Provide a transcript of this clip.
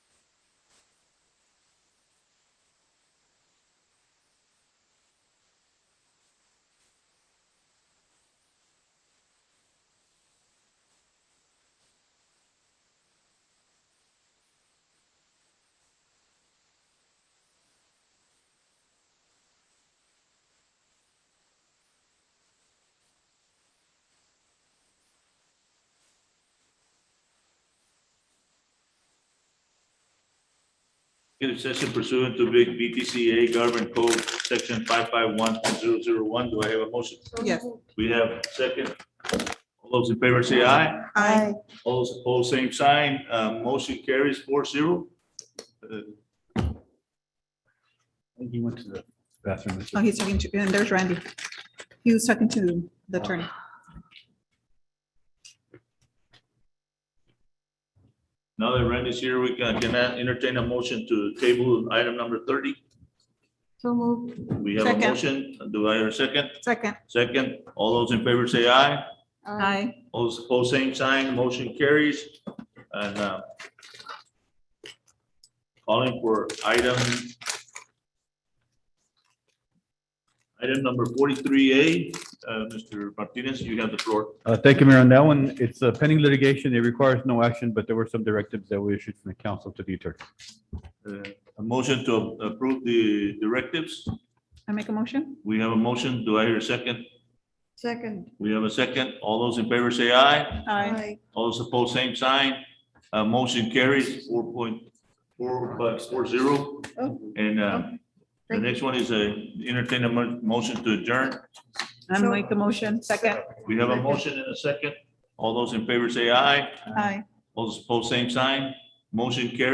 executive session pursuant to big BTCA Government Code, section five five one point zero zero one. Do I have a motion? Yes. We have second. All those in favor say aye. Aye. All those opposed, same sign. Uh, motion carries four zero. He went to the bathroom. Oh, he's talking to, and there's Randy. He was talking to the attorney. Now that Randy's here, we can, can I entertain a motion to table item number thirty. So moved. We have a Second. motion. Do I hear a second? Second. Second. All those in favor say aye. Aye. All those opposed, same sign. Motion carries. And, uh, calling for item item number forty-three A, uh, Mr. Martinez, you have the floor. Uh, thank you, Mayor. On that one, it's uh, pending litigation. It requires no action, but there were some directives that were issued from the council to the attorney. Uh, A motion to approve the directives. I make a motion? We have a motion. Do I hear a second? Second. We have a second. All those in favor say aye. Aye. All those opposed, same sign. Uh, motion carries four point four, but four zero. Oh, And, uh, the Thank you. next one is a entertain a mo- motion to adjourn. I make the motion. Second. We have a motion and a second. All those in favor say aye. Aye. All those opposed, same sign. Motion carries.